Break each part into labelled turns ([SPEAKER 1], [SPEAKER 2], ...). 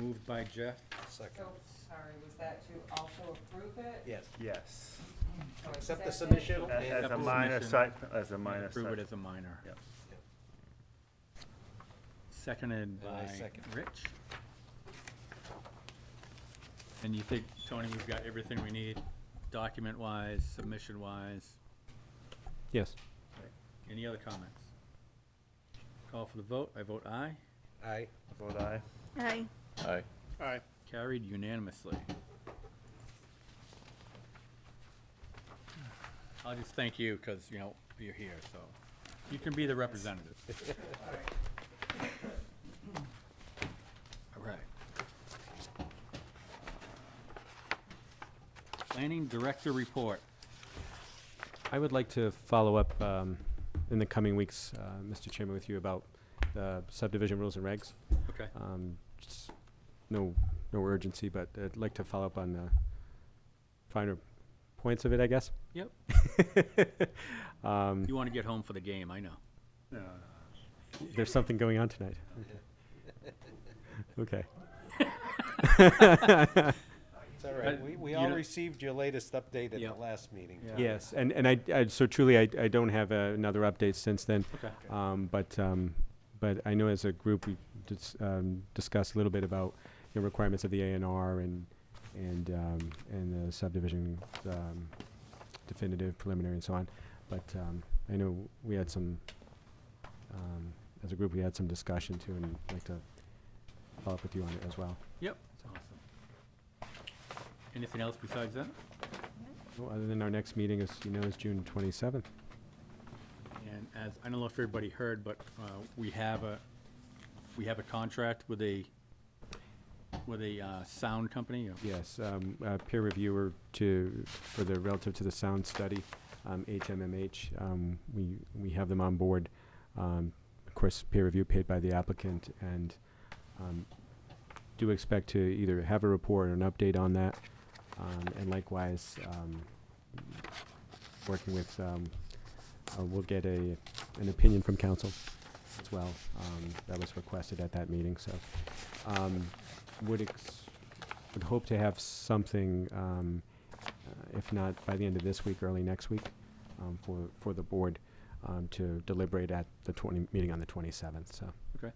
[SPEAKER 1] Moved by Jeff?
[SPEAKER 2] Second.
[SPEAKER 3] So, sorry, was that to also approve it?
[SPEAKER 2] Yes.
[SPEAKER 4] Yes,
[SPEAKER 3] So
[SPEAKER 2] Accept the
[SPEAKER 3] it.
[SPEAKER 2] submission
[SPEAKER 4] as
[SPEAKER 2] and
[SPEAKER 4] as a
[SPEAKER 1] Approve
[SPEAKER 4] minor
[SPEAKER 1] submission.
[SPEAKER 4] site, as a minor site.
[SPEAKER 1] Approve it as a minor.
[SPEAKER 4] Yep.
[SPEAKER 1] Seconded
[SPEAKER 2] And
[SPEAKER 1] by
[SPEAKER 2] I second.
[SPEAKER 1] Rich. And you think, Tony, we've got everything we need, document-wise, submission-wise?
[SPEAKER 5] Yes.
[SPEAKER 1] Any other comments? Call for the vote. I vote aye.
[SPEAKER 2] Aye.
[SPEAKER 4] Vote aye.
[SPEAKER 6] Aye.
[SPEAKER 7] Aye.
[SPEAKER 8] Aye.
[SPEAKER 1] Carried unanimously. I'll just thank you, because, you know, you're here, so you can be the representative. All right. Planning Director Report.
[SPEAKER 5] I would like to follow up um, in the coming weeks, uh, Mr. Chairman, with you about the subdivision rules and regs.
[SPEAKER 1] Okay.
[SPEAKER 5] Um, just No, no urgency, but I'd like to follow up on uh, finer points of it, I guess.
[SPEAKER 1] Yep.
[SPEAKER 5] Um,
[SPEAKER 1] You want to get home for the game, I know.
[SPEAKER 4] No, no.
[SPEAKER 5] There's something going on tonight. Okay.
[SPEAKER 2] It's all right.
[SPEAKER 1] But
[SPEAKER 2] We, we
[SPEAKER 1] you
[SPEAKER 2] all
[SPEAKER 1] don't-
[SPEAKER 2] received your latest update at
[SPEAKER 1] Yeah.
[SPEAKER 2] the last meeting.
[SPEAKER 1] Yeah.
[SPEAKER 5] Yes, and, and I, I- so truly, I, I don't have uh, another update since then.
[SPEAKER 1] Okay.
[SPEAKER 5] Um, but, um, but I know as a group, we dis- um, discussed a little bit about the requirements of the A and R and, and, um, and the subdivision, um, definitive, preliminary and so on. But, um, I know we had some, um, as a group, we had some discussion too, and I'd like to follow up with you on it as well.
[SPEAKER 1] Yep. Awesome. Anything else besides that?
[SPEAKER 5] Well, Other than our next meeting is, you know, is June twenty-seventh.
[SPEAKER 1] And as, I don't know if everybody heard, but uh, we have a, we have a contract with a, with a uh, sound company. uh,
[SPEAKER 5] Yes, um, uh, peer reviewer to, for the, relative to the sound study, um, HMMH, um, we, we have them on board. Um, of course, peer review paid by the applicant and, um, do expect to either have a report or an update on that. Um, and likewise, um, working with, um, uh, we'll get a, an opinion from council as well. Um, that was requested at that meeting, so, um, would ex- would hope to have something, um, uh, if not by the end of this week, early next week, um, for, for the board, um, to deliberate at the twenty, meeting on the twenty-seventh, so.
[SPEAKER 1] Okay.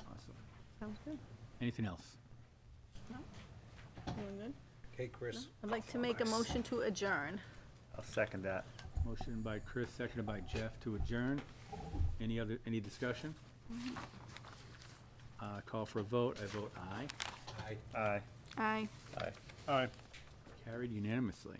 [SPEAKER 1] Awesome.
[SPEAKER 6] Sounds good.
[SPEAKER 1] Anything else?
[SPEAKER 6] Doing good.
[SPEAKER 2] Okay, Chris.
[SPEAKER 6] I'd like to make a motion to adjourn.
[SPEAKER 4] I'll second that.
[SPEAKER 1] Motion by Chris, seconded by Jeff to adjourn. Any other, any discussion? Uh, Call for a vote. I vote aye.
[SPEAKER 2] Aye.
[SPEAKER 4] Aye.
[SPEAKER 6] Aye.
[SPEAKER 7] Aye.
[SPEAKER 8] Aye.
[SPEAKER 1] Carried unanimously.